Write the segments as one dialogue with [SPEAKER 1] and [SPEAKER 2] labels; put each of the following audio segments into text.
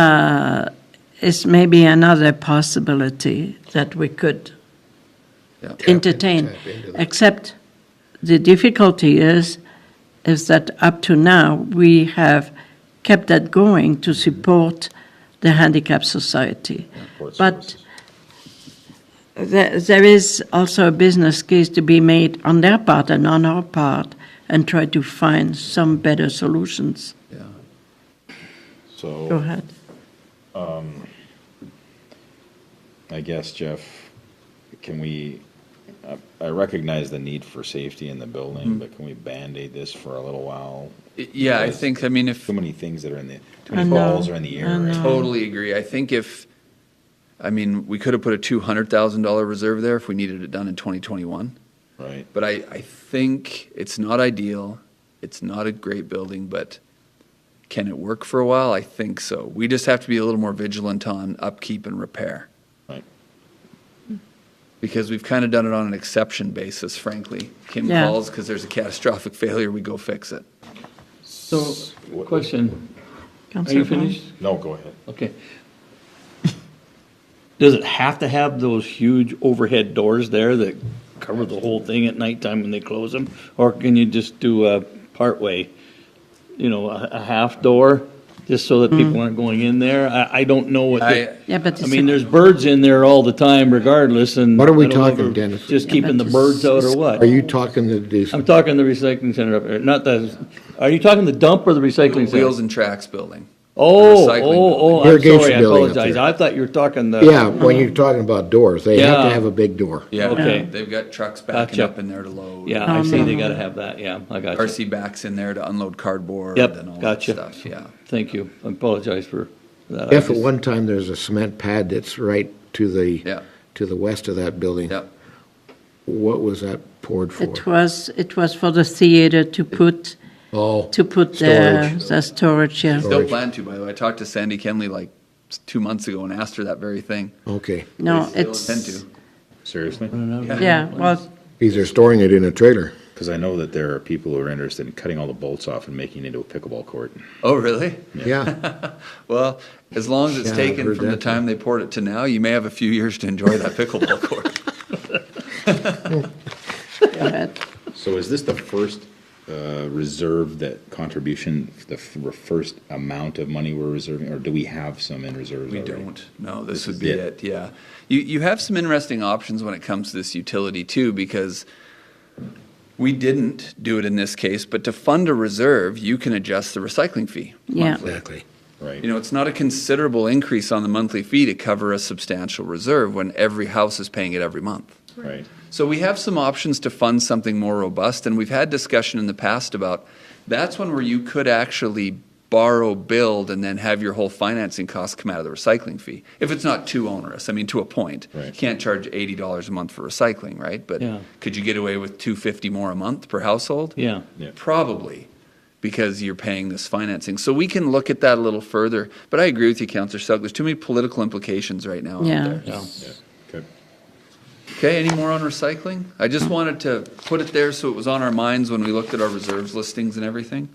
[SPEAKER 1] Uh, is maybe another possibility that we could
[SPEAKER 2] Yeah.
[SPEAKER 1] entertain.
[SPEAKER 2] Tap into that.
[SPEAKER 1] Except the difficulty is, is that up to now, we have kept that going
[SPEAKER 2] Mm-hmm.
[SPEAKER 1] to support the handicap society. But there, there is also a business case to be made on their part and on our part and try to find some better solutions.
[SPEAKER 2] Yeah.
[SPEAKER 1] Go
[SPEAKER 3] So
[SPEAKER 1] ahead.
[SPEAKER 3] I guess, Jeff, can we, I- I recognize the need for safety in the building,
[SPEAKER 1] Mm-hmm.
[SPEAKER 3] but can we Band-Aid this for a little while?
[SPEAKER 4] Yeah, I think, I mean, if,
[SPEAKER 3] Too many things that are in the, too
[SPEAKER 1] I
[SPEAKER 3] many
[SPEAKER 1] know,
[SPEAKER 3] balls are in the
[SPEAKER 1] I
[SPEAKER 3] air. right?
[SPEAKER 4] totally agree. I think if, I mean, we could have put a $200,000 reserve there if we needed it done in 2021.
[SPEAKER 3] Right.
[SPEAKER 4] But I, I think it's not ideal. It's not a great building, but can it work for a while? I think so. We just have to be a little more vigilant on upkeep and repair
[SPEAKER 3] Right.
[SPEAKER 4] because we've kind of done it on an exception basis, frankly. Kim
[SPEAKER 1] Yeah.
[SPEAKER 4] calls because there's a catastrophic failure, we go fix it.
[SPEAKER 5] So,
[SPEAKER 3] What-
[SPEAKER 5] question, are
[SPEAKER 1] Councillor
[SPEAKER 5] you
[SPEAKER 1] Brown?
[SPEAKER 5] finished?
[SPEAKER 3] No, go ahead.
[SPEAKER 5] Okay. Does it have to have those huge overhead doors there that cover the whole thing at nighttime when they close them? Or can you just do a partway, you know, a, a half door, just so that people aren't going in there? I, I don't know what,
[SPEAKER 4] I-
[SPEAKER 5] the-
[SPEAKER 1] Mm-hmm. Yeah, but
[SPEAKER 5] I
[SPEAKER 1] it's-
[SPEAKER 5] mean, there's birds in there all the time regardless and.
[SPEAKER 2] What are we
[SPEAKER 5] I don't know if
[SPEAKER 2] talking,
[SPEAKER 5] we're
[SPEAKER 2] Dennis?
[SPEAKER 5] Just
[SPEAKER 1] Yeah,
[SPEAKER 5] keeping the
[SPEAKER 1] but
[SPEAKER 5] birds out
[SPEAKER 1] it's-
[SPEAKER 5] or what?
[SPEAKER 2] Are you talking to this?
[SPEAKER 5] I'm talking the recycling center up there, not the, are you talking the dump or the recycling center?
[SPEAKER 4] Wheels and Tracks building.
[SPEAKER 5] Oh,
[SPEAKER 4] recycling
[SPEAKER 5] oh, oh, I'm
[SPEAKER 2] building.
[SPEAKER 5] sorry, I
[SPEAKER 2] Irrigation building up
[SPEAKER 5] apologize.
[SPEAKER 2] there.
[SPEAKER 5] I thought you were talking the.
[SPEAKER 2] Yeah, when you're talking about doors, they have
[SPEAKER 5] Yeah.
[SPEAKER 2] to have a big door.
[SPEAKER 4] Yeah,
[SPEAKER 5] Okay.
[SPEAKER 4] they've got trucks backing
[SPEAKER 5] Gotcha.
[SPEAKER 4] up in there to load.
[SPEAKER 5] Yeah, I
[SPEAKER 1] Um,
[SPEAKER 5] see, they gotta have that, yeah, I got you.
[SPEAKER 4] RC backs in there to unload cardboard
[SPEAKER 5] Yep,
[SPEAKER 4] and all
[SPEAKER 5] gotcha.
[SPEAKER 4] that stuff. Yeah.
[SPEAKER 5] Thank you, I apologize for that. I
[SPEAKER 2] If at
[SPEAKER 5] just-
[SPEAKER 2] one time there's a cement pad that's right to
[SPEAKER 4] Yeah.
[SPEAKER 2] the, to the west of that building,
[SPEAKER 4] Yep.
[SPEAKER 2] what was that poured for?
[SPEAKER 1] It was, it was for the theater to put,
[SPEAKER 2] Oh.
[SPEAKER 1] to put their,
[SPEAKER 2] Storage.
[SPEAKER 1] their storage, yeah.
[SPEAKER 4] Still
[SPEAKER 2] Storage.
[SPEAKER 4] plan to, by the way. I talked to Sandy Kenley like s- two months ago and asked her that very thing.
[SPEAKER 2] Okay.
[SPEAKER 1] No,
[SPEAKER 4] They still intend
[SPEAKER 1] it's,
[SPEAKER 4] to.
[SPEAKER 3] Seriously?
[SPEAKER 1] yeah, well,
[SPEAKER 2] Because they're storing it in a trailer.
[SPEAKER 3] Because I know that there are people who are interested in cutting all the bolts off and making it into a pickleball court.
[SPEAKER 4] Oh, really?
[SPEAKER 2] Yeah.
[SPEAKER 4] Well, as long as it's
[SPEAKER 2] Yeah, I've
[SPEAKER 4] taken
[SPEAKER 2] heard
[SPEAKER 4] from the
[SPEAKER 2] that.
[SPEAKER 4] time they poured it to now, you may have a few years to enjoy that pickleball court.
[SPEAKER 1] but
[SPEAKER 3] So is this the first uh, reserve that contribution, the f- first amount of money we're reserving, or do we have some in reserves
[SPEAKER 4] We
[SPEAKER 3] already?
[SPEAKER 4] don't. No, this
[SPEAKER 3] This
[SPEAKER 4] would
[SPEAKER 3] is
[SPEAKER 4] be
[SPEAKER 3] it.
[SPEAKER 4] it. Yeah. You, you have some interesting options when it comes to this utility too, because we didn't do it in this case, but to fund a reserve, you can adjust the recycling fee.
[SPEAKER 1] yeah.
[SPEAKER 2] Exactly.
[SPEAKER 3] Right.
[SPEAKER 4] You know, it's not a considerable increase on the monthly fee to cover a substantial reserve when every house is paying it every month.
[SPEAKER 3] Right.
[SPEAKER 4] So we have some options to fund something more robust, and we've had discussion in the past about that's one where you could actually borrow, build, and then have your whole financing costs come out of the recycling fee if it's not too onerous. I mean, to a point, you
[SPEAKER 3] Right.
[SPEAKER 4] can't charge eighty dollars a month for recycling, right? But
[SPEAKER 5] Yeah.
[SPEAKER 4] could you get away with two fifty more a month per household?
[SPEAKER 5] Yeah,
[SPEAKER 3] Yeah.
[SPEAKER 4] Probably because you're paying this financing. So we can look at that a little further. But I agree with you, Councillor Sugg. There's too many political implications right now
[SPEAKER 1] Yeah.
[SPEAKER 4] out there.
[SPEAKER 5] yeah.
[SPEAKER 3] Yeah. Okay.
[SPEAKER 4] Okay, any more on recycling? I just wanted to put it there so it was on our minds when we looked at our reserves listings and everything.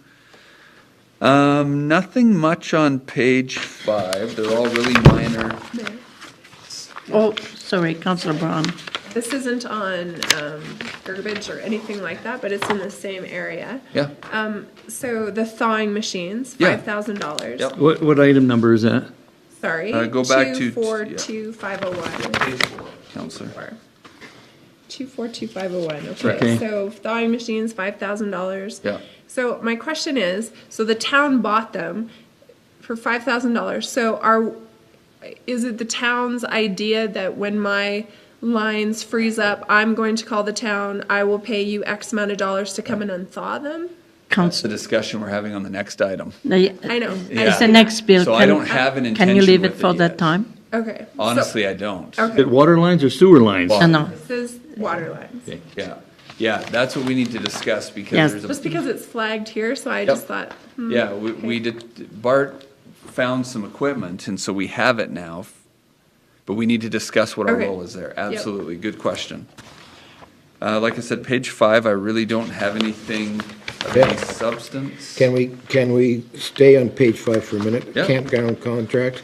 [SPEAKER 4] Um, nothing much on page five. They're all really minor.
[SPEAKER 1] Oh, sorry, Councillor Brown.
[SPEAKER 6] This isn't on um, garbage or anything like that, but it's in the same area.
[SPEAKER 4] Yeah,
[SPEAKER 6] So the thawing machines,
[SPEAKER 4] Yeah.
[SPEAKER 6] five thousand dollars.
[SPEAKER 4] Yep.
[SPEAKER 5] What, what item number is that?
[SPEAKER 6] Sorry.
[SPEAKER 4] Uh, go back to-
[SPEAKER 6] two four
[SPEAKER 4] yeah.
[SPEAKER 6] two five zero one.
[SPEAKER 4] Counselor.
[SPEAKER 6] Two four two five zero one. Okay.
[SPEAKER 5] Okay.
[SPEAKER 6] So thawing machines, five thousand dollars.
[SPEAKER 4] Yeah.
[SPEAKER 6] So my question is, so the town bought them for five thousand dollars. So are is it the town's idea that when my lines freeze up, I'm going to call the town, I will pay you X amount of dollars to come and unthaw them?
[SPEAKER 4] That's the
[SPEAKER 1] Councillor,
[SPEAKER 4] discussion we're having on the next item.
[SPEAKER 6] I know.
[SPEAKER 1] It's the
[SPEAKER 4] Yeah.
[SPEAKER 1] next bill.
[SPEAKER 4] So I
[SPEAKER 1] Can-
[SPEAKER 4] don't have an
[SPEAKER 1] Can you
[SPEAKER 4] intention
[SPEAKER 1] leave it
[SPEAKER 4] with it
[SPEAKER 1] for that
[SPEAKER 4] yet.
[SPEAKER 1] time?
[SPEAKER 6] Okay. So
[SPEAKER 4] Honestly, I don't.
[SPEAKER 6] Okay.
[SPEAKER 5] It water lines or sewer lines?
[SPEAKER 1] I know,
[SPEAKER 6] this is water lines.
[SPEAKER 4] Yeah, yeah, that's what we need to discuss
[SPEAKER 1] Yes.
[SPEAKER 4] because there's a.
[SPEAKER 6] Just because it's flagged here, so I just thought. hmm,
[SPEAKER 4] Yeah, we, we did, Bart found some equipment, and so we have it now, f- but we need to discuss what our
[SPEAKER 6] Okay.
[SPEAKER 4] role is there. Absolutely, good question. Uh, like I said, page five, I really don't have anything of any
[SPEAKER 2] Yeah.
[SPEAKER 4] substance.
[SPEAKER 2] Can we, can we stay on page five for a minute?
[SPEAKER 4] Yeah.
[SPEAKER 2] Campground contract?